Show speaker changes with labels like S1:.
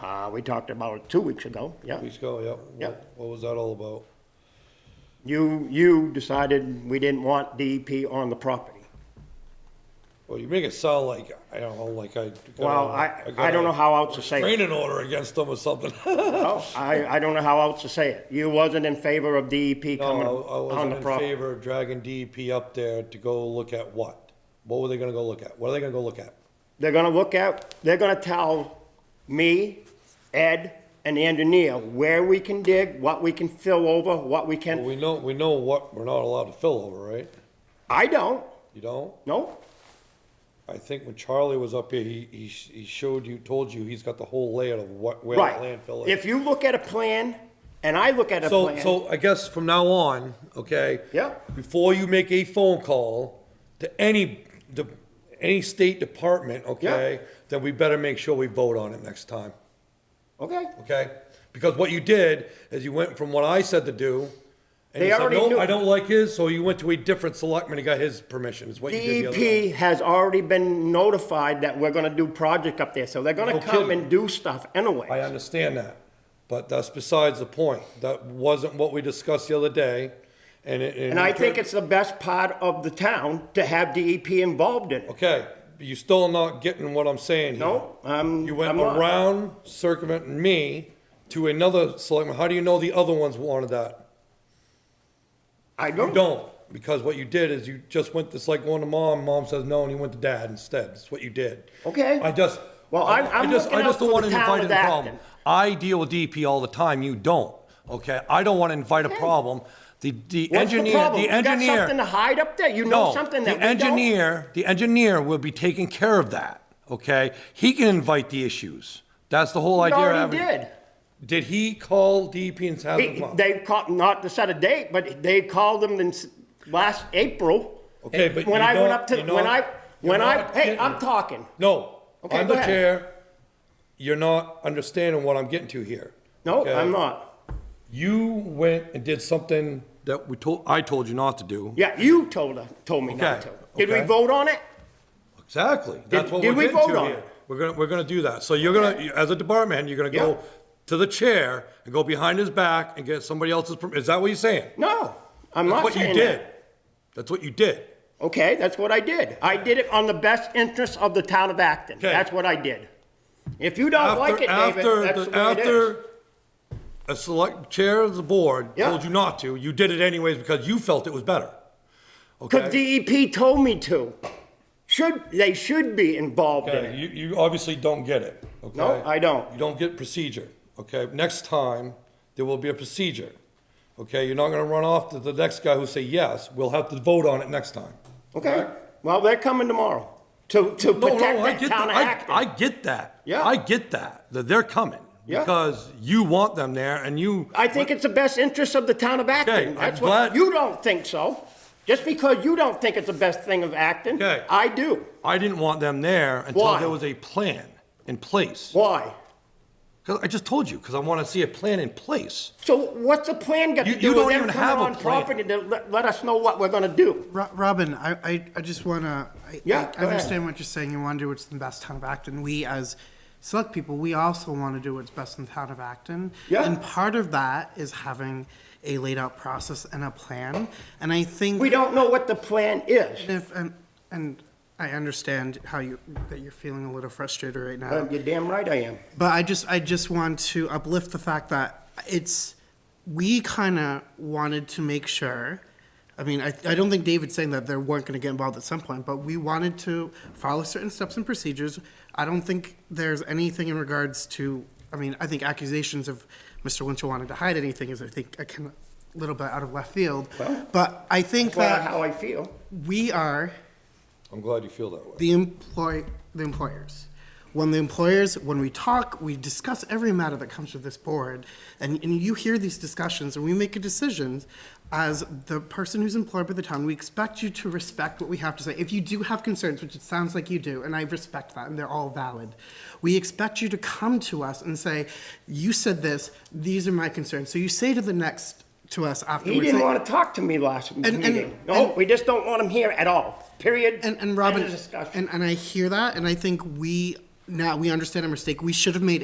S1: Uh, we talked about it two weeks ago, yeah.
S2: Please go, yep. What-
S1: Yep.
S2: What was that all about?
S1: You, you decided we didn't want DEP on the property.
S2: Uh, Well, you make it sound like, I don't know, like I.
S1: Well, I, I don't know how else to say it.
S2: Training order against them or something.
S1: No, I, I don't know how else to say it. You wasn't in favor of DEP coming
S2: No, I- I
S1: on
S2: wasn't
S1: the
S2: in
S1: property.
S2: favor of dragging DEP up there to go look at what? What were they gonna go look at? What are they gonna go look at?
S1: They're gonna look at, they're gonna tell me, Ed, and the engineer where we can dig, what we can fill over, what we
S2: Well,
S1: can,
S2: we know, we know what we're not allowed to fill over, right?
S1: I don't,
S2: You don't?
S1: no.
S2: I think when Charlie was up here, he, he, sh- he showed you, told you, he's got the whole layout of what, where the
S1: Right.
S2: landfill is.
S1: If you look at a plan, and I look at a
S2: So,
S1: plan,
S2: so I guess from now on, okay?
S1: Yeah.
S2: Before you make a phone call to any, the, any state department, okay? Then we better make sure we vote on it next time,
S1: okay,
S2: okay? Because what you did is you went from what I said to do. and
S1: They
S2: you said,
S1: already
S2: "No,
S1: knew."
S2: I don't like his, so you went to a different selectman and got his permission, is what you did the other time.
S1: DEP E has already been notified that we're gonna do project up there, so they're gonna
S2: No
S1: come
S2: kidding.
S1: and do stuff
S2: Oh, I
S1: anyway.
S2: understand that, but that's besides the point. That wasn't what we discussed the other day, and it.
S1: And I think it's the best part of the town to have DEP involved in it.
S2: Okay, but you still not getting what I'm saying here.
S1: No, I'm,
S2: You
S1: Um, I'm
S2: went
S1: not.
S2: around circumventing me to another selectman. How do you know the other ones wanted that?
S1: I
S2: You don't, because what you did is you just went, it's like going to mom, mom says no, and you went to dad instead. That's what you did.
S1: Okay.
S2: I just.
S1: Well, I'm-
S2: I
S1: I'm
S2: just-
S1: looking
S2: I just
S1: out
S2: don't
S1: for
S2: want
S1: the
S2: to
S1: town
S2: invite
S1: of
S2: in the problem.
S1: Acton.
S2: I deal with DP all the time, you don't, okay? I don't want to invite a problem. The, the
S1: What's the
S2: engineer,
S1: problem?
S2: the
S1: You got
S2: engineer.
S1: something to hide up there? You know
S2: No,
S1: something
S2: the
S1: that we don't?
S2: engineer, the engineer will be taking care of that, okay? He can invite the issues. That's the whole
S1: He
S2: idea. of
S1: already
S2: having-
S1: did.
S2: Did he call DEP and have them
S1: He-
S2: come?
S1: They called, not to set a date, but they called them in s- last April.
S2: Okay, but
S1: When
S2: you
S1: I went
S2: don't-
S1: up to,
S2: you know-
S1: when I,
S2: you're
S1: when I,
S2: not
S1: hey,
S2: getting-
S1: I'm talking.
S2: No,
S1: Okay,
S2: I'm
S1: go
S2: the
S1: ahead.
S2: chair. You're not understanding what I'm getting to here.
S1: No,
S2: okay?
S1: I'm not.
S2: You went and did something that we told, I told you not to do.
S1: Yeah, you told, her- told me not to.
S2: Okay,
S1: Did we
S2: okay.
S1: vote on it?
S2: Exactly. That's what
S1: did
S2: we're
S1: we
S2: getting
S1: vote
S2: to
S1: on
S2: here.
S1: it?
S2: We're gonna, we're gonna do that. So you're gonna, you- as a department head, you're gonna go
S1: Yeah.
S2: to the chair and go behind his back and get somebody else's, perm- is that what you're saying?
S1: No, I'm
S2: That's
S1: not
S2: what you
S1: saying
S2: did.
S1: that.
S2: That's what you did.
S1: Okay, that's what I did. I did it on the best interest of the town of Acton.
S2: Okay.
S1: That's what I did. If you don't
S2: After-
S1: like it, David,
S2: after
S1: that's
S2: the-
S1: the way it is.
S2: After a select chair of the board
S1: Yeah.
S2: told you not to, you did it anyways because you felt it was better.
S1: Because
S2: Okay?
S1: DEP E told me to. Should, they should be involved in
S2: Okay,
S1: it.
S2: You, you obviously don't get it, okay?
S1: No, I don't.
S2: You don't get procedure, okay? Next time, there will be a procedure, okay? You're not gonna run off to the next guy who say yes. We'll have to vote on it next time.
S1: Okay, well, they're coming tomorrow to, to
S2: No,
S1: protect
S2: no, I
S1: that
S2: get
S1: town
S2: that.
S1: of
S2: I, I
S1: Acton.
S2: get that.
S1: Yeah.
S2: I get that, that they're coming.
S1: Yeah.
S2: Because you want them there and you.
S1: I think it's the best interest of the town of Acton.
S2: I'm
S1: That's what,
S2: glad-
S1: you don't think so. Just because you don't think it's the best thing of Acton,
S2: Okay.
S1: I do.
S2: I didn't want them there until
S1: Why?
S2: there was a plan in place.
S1: Why?
S2: Because I just told you, because I want to see a plan in place.
S1: So what's the plan got
S2: You-
S1: to
S2: you
S1: do with
S2: don't
S1: them
S2: even
S1: coming
S2: have a
S1: on
S2: plan.
S1: property to let, let us know what we're gonna do?
S3: Ro- Robin, I, I, I just want to, I,
S1: Yeah, go
S3: I
S1: ahead.
S3: understand what you're saying. You want to do what's in the best town of Acton. We, as select people, we also want to do what's best in the town of Acton.
S1: Yeah.
S3: And part of that is having a laid out process and a plan. And I think
S1: We don't know what the plan is.
S3: if, and, and I understand how you, that you're feeling a little frustrated right now.
S1: Uh, You're damn right I am.
S3: But I just I just want to uplift the fact that it's we kind of wanted to make sure. I mean, I, I don't think David's saying that they weren't going to get involved at some point, but we wanted to follow certain steps and procedures. I don't think there's anything in regards to. I mean, I think accusations of Mr. Winchell wanted to hide anything is, I think, a kind of little bit out of left field. but I think
S1: Well,
S3: that
S1: how I feel.
S3: we are
S2: I'm glad you feel that way.
S3: the employ the employers. When the employers, when we talk, we discuss every matter that comes to this board, and, and you hear these discussions, and we make a decision. As the person who's employed by the town, we expect you to respect what we have to say. If you do have concerns, which it sounds like you do, and I respect that, and they're all valid, we expect you to come to us and say, "You said this. These are my concerns." So you say to the next to us afterwards.
S1: He didn't
S3: like,
S1: want to talk to me last
S3: and-
S1: meeting. No,
S3: and-
S1: we just don't want him here at all, period.
S3: And,
S1: End
S3: and
S1: of
S3: Robin,
S1: discussion.
S3: and, and I hear that, and I think we, now we understand our mistake. We should have made